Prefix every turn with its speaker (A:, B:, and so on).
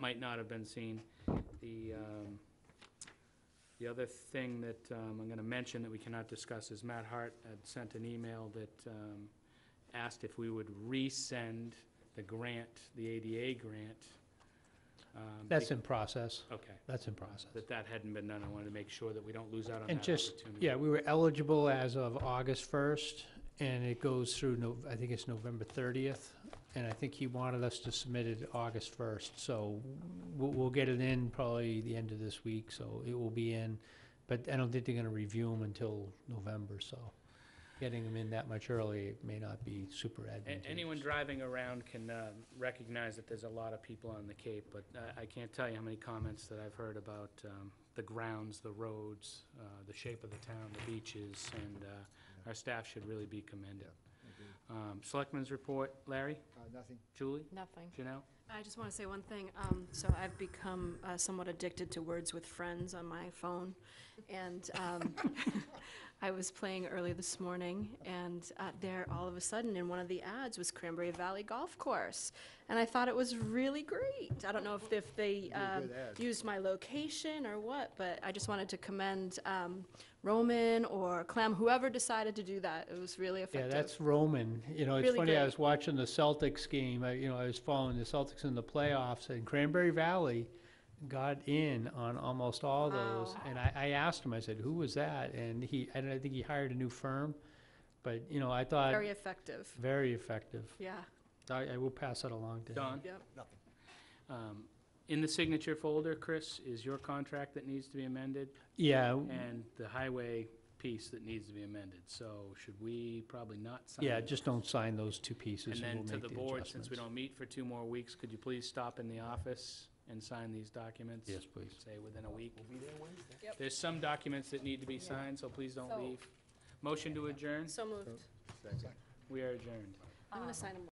A: might not have been seen. The, um, the other thing that um, I'm going to mention that we cannot discuss is Matt Hart had sent an email that um, asked if we would resend the grant, the ADA grant. um,
B: That's in process.
A: Okay.
B: That's in process.
A: That that hadn't been done. I wanted to make sure that we don't lose out on that
B: And
A: opportunity.
B: just, yeah, we were eligible as of August first, and it goes through, No, I think it's November thirtieth, and I think he wanted us to submit it August first, so we'll, we'll get it in probably the end of this week, so it will be in, but I don't think they're gonna review them until November, so getting them in that much early it may not be super
A: A-
B: advantageous.
A: Anyone driving around can uh, recognize that there's a lot of people on the Cape, but I- I can't tell you how many comments that I've heard about um, the grounds, the roads, uh, the shape of the town, the beaches, and uh, our staff should really be commended. Um, Selectmen's report, Larry,
C: Nothing.
A: Julie,
D: Nothing.
A: Janelle?
D: I just want to say one thing. Um, So I've become uh, somewhat addicted to words with friends on my phone. And um, I was playing early this morning, and uh, there, all of a sudden, in one of the ads was Cranberry Valley Golf Course. And I thought it was really great. I don't know if- if they um,
C: good ad.
D: used my location or what, but I just wanted to commend um, Roman or Clem, whoever decided to do that. It was really
B: Yeah,
D: effective.
B: that's Roman. You know, it's
D: Really
B: funny, I
D: great.
B: was watching the Celtics game, I- you know, I was following the Celtics in the playoffs, and Cranberry Valley got in on almost all those.
D: Wow.
B: And I, I asked him, I said, who was that? And he, I don't, I think he hired a new firm, but, you know, I thought,
D: Very effective.
B: very effective.
D: Yeah,
B: I, I will pass that along to him.
A: Don?
D: yep.
A: Um, In the signature folder, Chris, is your contract that needs to be amended
B: Yeah,
A: and the highway piece that needs to be amended. So should we probably not sign?
B: yeah,
A: it?
B: just don't sign those two pieces,
A: And
B: and
A: then
B: we'll
A: to
B: make
A: the
B: the
A: board, since we
B: adjustments.
A: don't meet for two more weeks, could you please stop in the office and sign these documents?
B: Yes, please.
A: Say, within a week.
C: We'll be there Wednesday.
A: There's some documents that need to be signed, so please don't
D: So-
A: leave. Motion to adjourn,
D: So moved.
C: Second.
A: we are adjourned.
D: I'm going to sign them